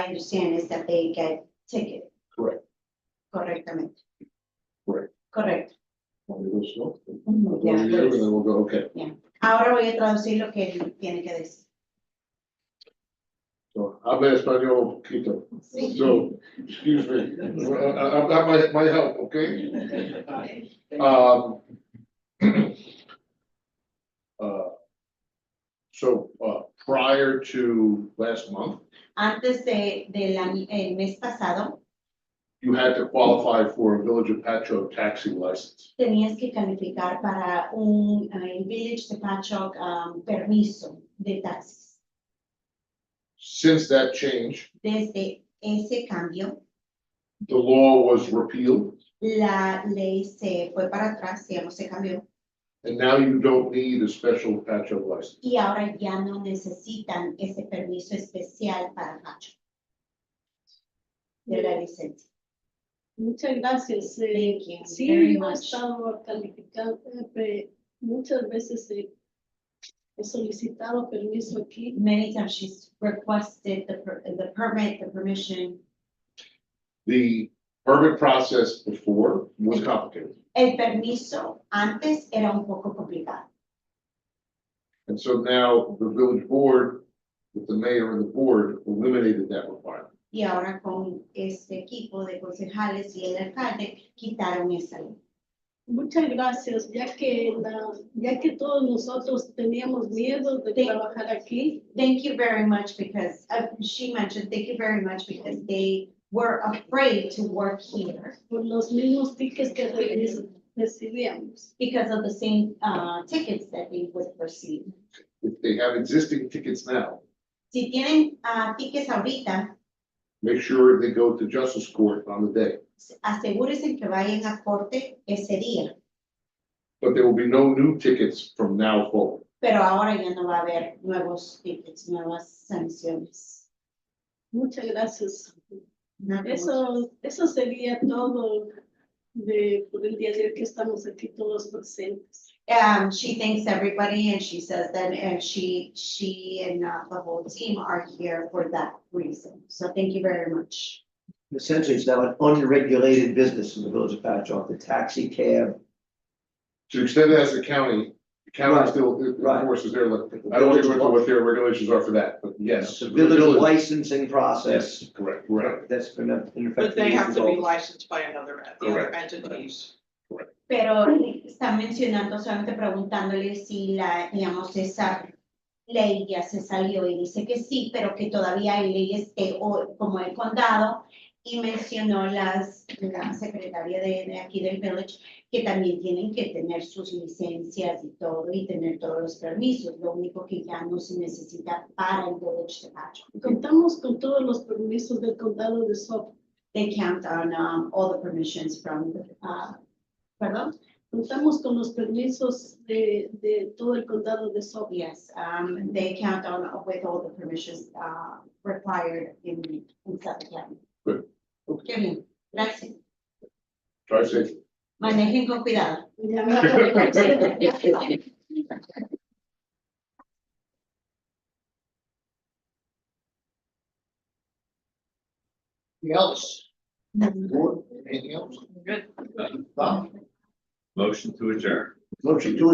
understand is that they get ticket. Correct. Correctamente. Correct. Correcto. Cuando yo soy, Ujú, ya, cuando yo llego, pues. luego digo, okay, Ahora voy a traducir lo que él tiene que decir. so, habla español un poquito. Sí. So, excuse me, Well, I, I've got my, my help, okay? Um. uh, So, uh, prior to last month, Antes de, del año- el mes pasado, you had to qualify for a Village of Patchogue taxi license. tenías que calificar para un eh, Village de Patchogue, um, permiso de taxis. Since that change, Desde ese cambio, the law was repealed, la ley se fue para atrás, digamos, se cambió. and now you don't need a special Patchogue license. Y ahora ya no necesitan ese permiso especial para Patchogue de la licencia. Muchas gracias. eh, Thank you very Sí, yo he much. estado calificado, eh, pe- muchas veces eh, he solicitado permiso aquí. Many times she's requested the, per- the permit, the permission. The permit process before was complicated, El permiso antes era un poco complicado. and so now the village board, with the mayor and the board, eliminated that requirement. Y ahora con este equipo de concejales y el alcalde quitaron esa ley. Muchas gracias, ya que, la- ya que todos nosotros teníamos miedo de Sí. trabajar aquí. Thank you very much because, uh, she mentioned, thank you very much because they were afraid to work here por los mismos tickets que re- recibíamos. because of the same, uh, tickets that they would receive. If they have existing tickets now, Si tienen, uh, tickets ahorita, make sure they go to justice court on the day. asegúrense que vayan a corte ese día. But there will be no new tickets from now forward. Pero ahora ya no va a haber nuevos tickets, nuevas sanciones. Muchas gracias. Nada más. Eso, eso sería todo de, por el día de hoy que estamos aquí todos presentes. Um, she thanks everybody and she says that, and she, she and uh, the whole team are here for that reason. So thank you very much. Essentially, it's now an unregulated business in the village of Patchogue, the taxi cab. To the extent it has the county, the county Right. still Right. enforces their, I don't even know what their regulations are for that, but yes. The village licensing process. Correct, correct. That's been in effect. But they have to be resolved. licensed by another, the other Correct. entities. Pero están mencionando, solamente preguntándole si la, digamos, esa ley ya se salió y dice que sí, pero que todavía hay leyes que, o, como el condado, y mencionó las, la secretaria de, de aquí del village, que también tienen que tener sus licencias y todo, y tener todos los permisos, lo único que ya no se necesita para el village de Pacho. Contamos con todos los permisos del condado de Suffolk. They count on, um, all the permissions from, uh, perdón, Contamos con los permisos de, de todo el condado de Suffolk. Yes, um, they count on with all the permissions, uh, required in, in Suffolk County. Good. Qué bien, gracias. Try safe. Manejen con cuidado. Ya me- Anything else? Board, anything else? Good. Motion to adjourn. Motion to